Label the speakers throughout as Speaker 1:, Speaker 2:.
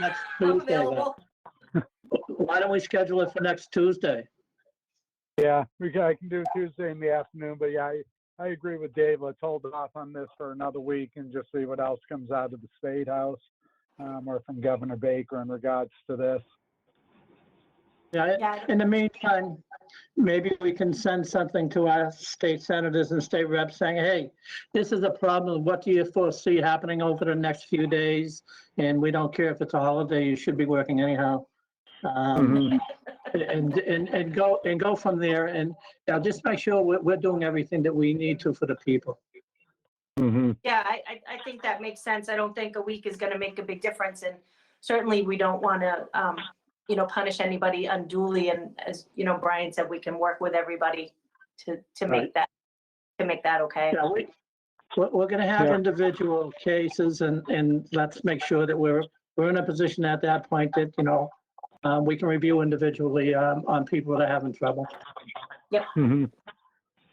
Speaker 1: next
Speaker 2: I'm
Speaker 1: Tuesday then.
Speaker 2: available.
Speaker 1: Why don't we schedule it for next Tuesday?
Speaker 3: Yeah, we can, I can do Tuesday in the afternoon, but yeah, I, I agree with Dave. Let's hold off on this for another week and just see what else comes out of the State House um, or from Governor Baker in regards to this.
Speaker 1: Yeah,
Speaker 2: Yeah.
Speaker 1: in the meantime, maybe we can send something to our state senators and state reps saying, hey, this is a problem. What do you foresee happening over the next few days? And we don't care if it's a holiday, you should be working anyhow. Um, And, and, and go, and go from there and uh, just make sure we're, we're doing everything that we need to for the people. mm-hmm,
Speaker 3: Mhm.
Speaker 2: Yeah, I, I, I think that makes sense. I don't think a week is gonna make a big difference and certainly we don't wanna, um, you know, punish anybody unduly and as, you know, Brian said, we can work with everybody to, to make
Speaker 1: Right.
Speaker 2: that, to make that okay.
Speaker 1: Yeah, we, we're, we're gonna have
Speaker 3: Yeah.
Speaker 1: individual cases and, and let's make sure that we're, we're in a position at that point that, you know, um, we can review individually, um, on people that are having trouble. mm-hmm.
Speaker 3: Mhm.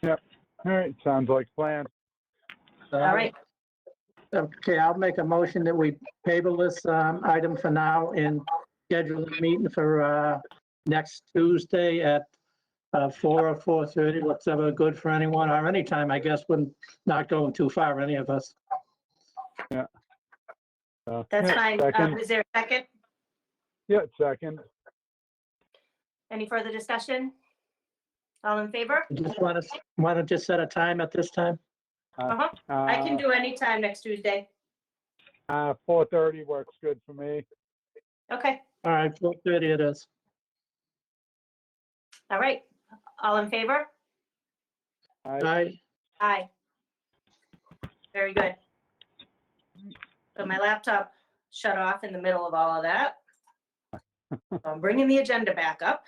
Speaker 3: Yep. All right. Sounds like a plan.
Speaker 2: All right,
Speaker 1: Okay, I'll make a motion that we table this, um, item for now and schedule a meeting for, uh, next Tuesday at, uh, four or four thirty, whatever good for anyone or anytime, I guess, when not going too far, any of us.
Speaker 3: Uh,
Speaker 2: that's
Speaker 3: yeah,
Speaker 2: fine. Um,
Speaker 3: Second.
Speaker 2: is there a second?
Speaker 3: Yeah, second.
Speaker 2: Any further discussion? All in favor?
Speaker 1: Just want to, want to just set a time at this time?
Speaker 2: Uh-huh. I can do any time next Tuesday.
Speaker 3: Uh, 4:30 works good for me.
Speaker 2: Okay,
Speaker 1: All right, four thirty it is.
Speaker 2: all right. All in favor?
Speaker 3: I-
Speaker 1: All right,
Speaker 2: Aye. Very good. So my laptop shut off in the middle of all of that. So I'm bringing the agenda back up.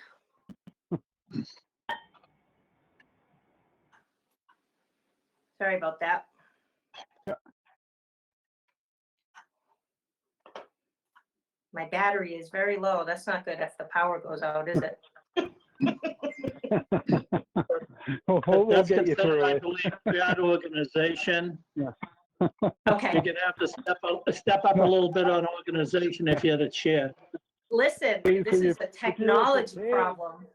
Speaker 2: Sorry about that. My battery is very low. That's not good if the power goes out, is it?
Speaker 3: We'll, Oh, we'll
Speaker 1: That's
Speaker 3: get you
Speaker 1: considered,
Speaker 3: through
Speaker 1: I
Speaker 3: it.
Speaker 1: believe, bad organization. You're
Speaker 2: Okay,
Speaker 1: gonna have to step up, step up a little bit on organization if you're the chair.
Speaker 2: listen,
Speaker 3: Please,
Speaker 2: this
Speaker 3: will you-
Speaker 2: is a technology problem.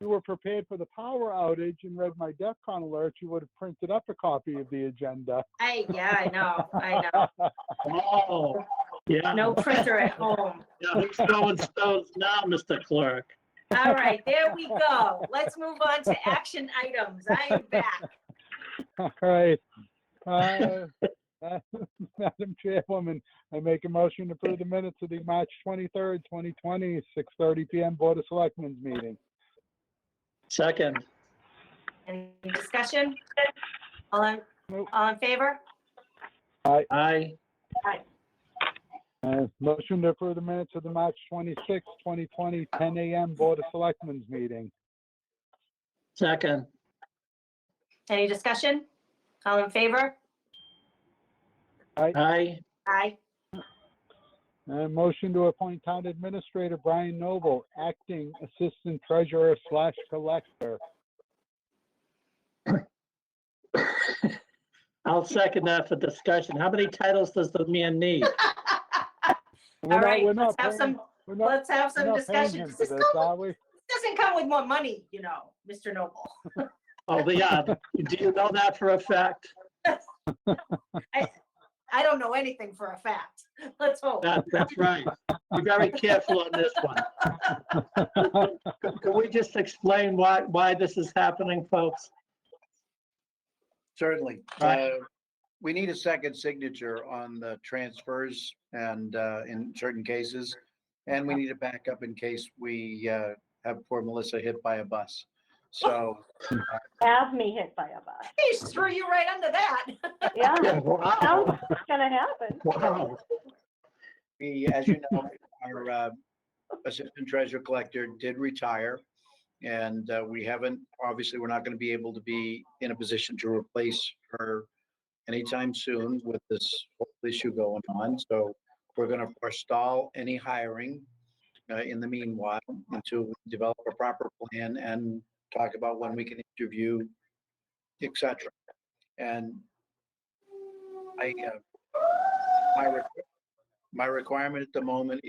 Speaker 3: you were prepared for the power outage and read my DEFCON alert, you would have printed up a copy of the agenda.
Speaker 2: I, yeah, I know, I know.
Speaker 1: Oh, yeah.
Speaker 2: No printer at home.
Speaker 1: Yeah, who's throwing stones now, Mr. Clerk?
Speaker 2: All right, there we go. Let's move on to action items. I am back.
Speaker 3: All right. Uh, uh, Madam Chairwoman, I make a motion to approve the minutes of the March 23rd, 2020, 6:30 PM Board of Selectmen's meeting.
Speaker 1: Second,
Speaker 2: Any discussion? All in,
Speaker 3: Nope.
Speaker 2: all in favor?
Speaker 1: aye,
Speaker 3: Uh, Motion to approve the minutes of the March 26th, 2020, 10 AM Board of Selectmen's meeting.
Speaker 1: second,
Speaker 2: Any discussion? All in favor?
Speaker 1: aye,
Speaker 2: Aye.
Speaker 3: Uh, motion to appoint Town Administrator Brian Noble, Acting Assistant Treasurer slash Collector.
Speaker 1: I'll second that for discussion. How many titles does the man need?
Speaker 3: We're
Speaker 2: All
Speaker 3: not-
Speaker 2: right,
Speaker 3: we're not
Speaker 2: let's have
Speaker 3: paying-
Speaker 2: some,
Speaker 3: we're not-
Speaker 2: let's have
Speaker 3: we're
Speaker 2: some
Speaker 3: not paying
Speaker 2: discussion.
Speaker 3: him
Speaker 2: This
Speaker 3: for
Speaker 2: is
Speaker 3: this,
Speaker 2: come-
Speaker 3: are we?
Speaker 2: doesn't come with more money, you know, Mr. Noble.
Speaker 1: Oh, yeah, do you know that for a fact?
Speaker 2: I don't know anything for a fact. Let's hope.
Speaker 1: That, that's right. Be very careful on this one. Can- Can we just explain why, why this is happening, folks?
Speaker 4: Certainly.
Speaker 1: Right.
Speaker 4: Uh, We need a second signature on the transfers and uh, in certain cases. And we need a backup in case we uh, have poor Melissa hit by a bus. So
Speaker 5: have me hit by a bus.
Speaker 2: He threw you right under that.
Speaker 5: Yeah,
Speaker 1: Yeah, Wow,
Speaker 5: sounds gonna happen.
Speaker 1: wow.
Speaker 4: we, as you know, our uh, Assistant Treasurer Collector did retire. And uh, we haven't, obviously, we're not going to be able to be in a position to replace her anytime soon with this whole issue going on. So we're going to forestall any hiring uh, in the meanwhile until we develop a proper plan and talk about when we can interview, et cetera. And I, uh, my, re- my requirement at the moment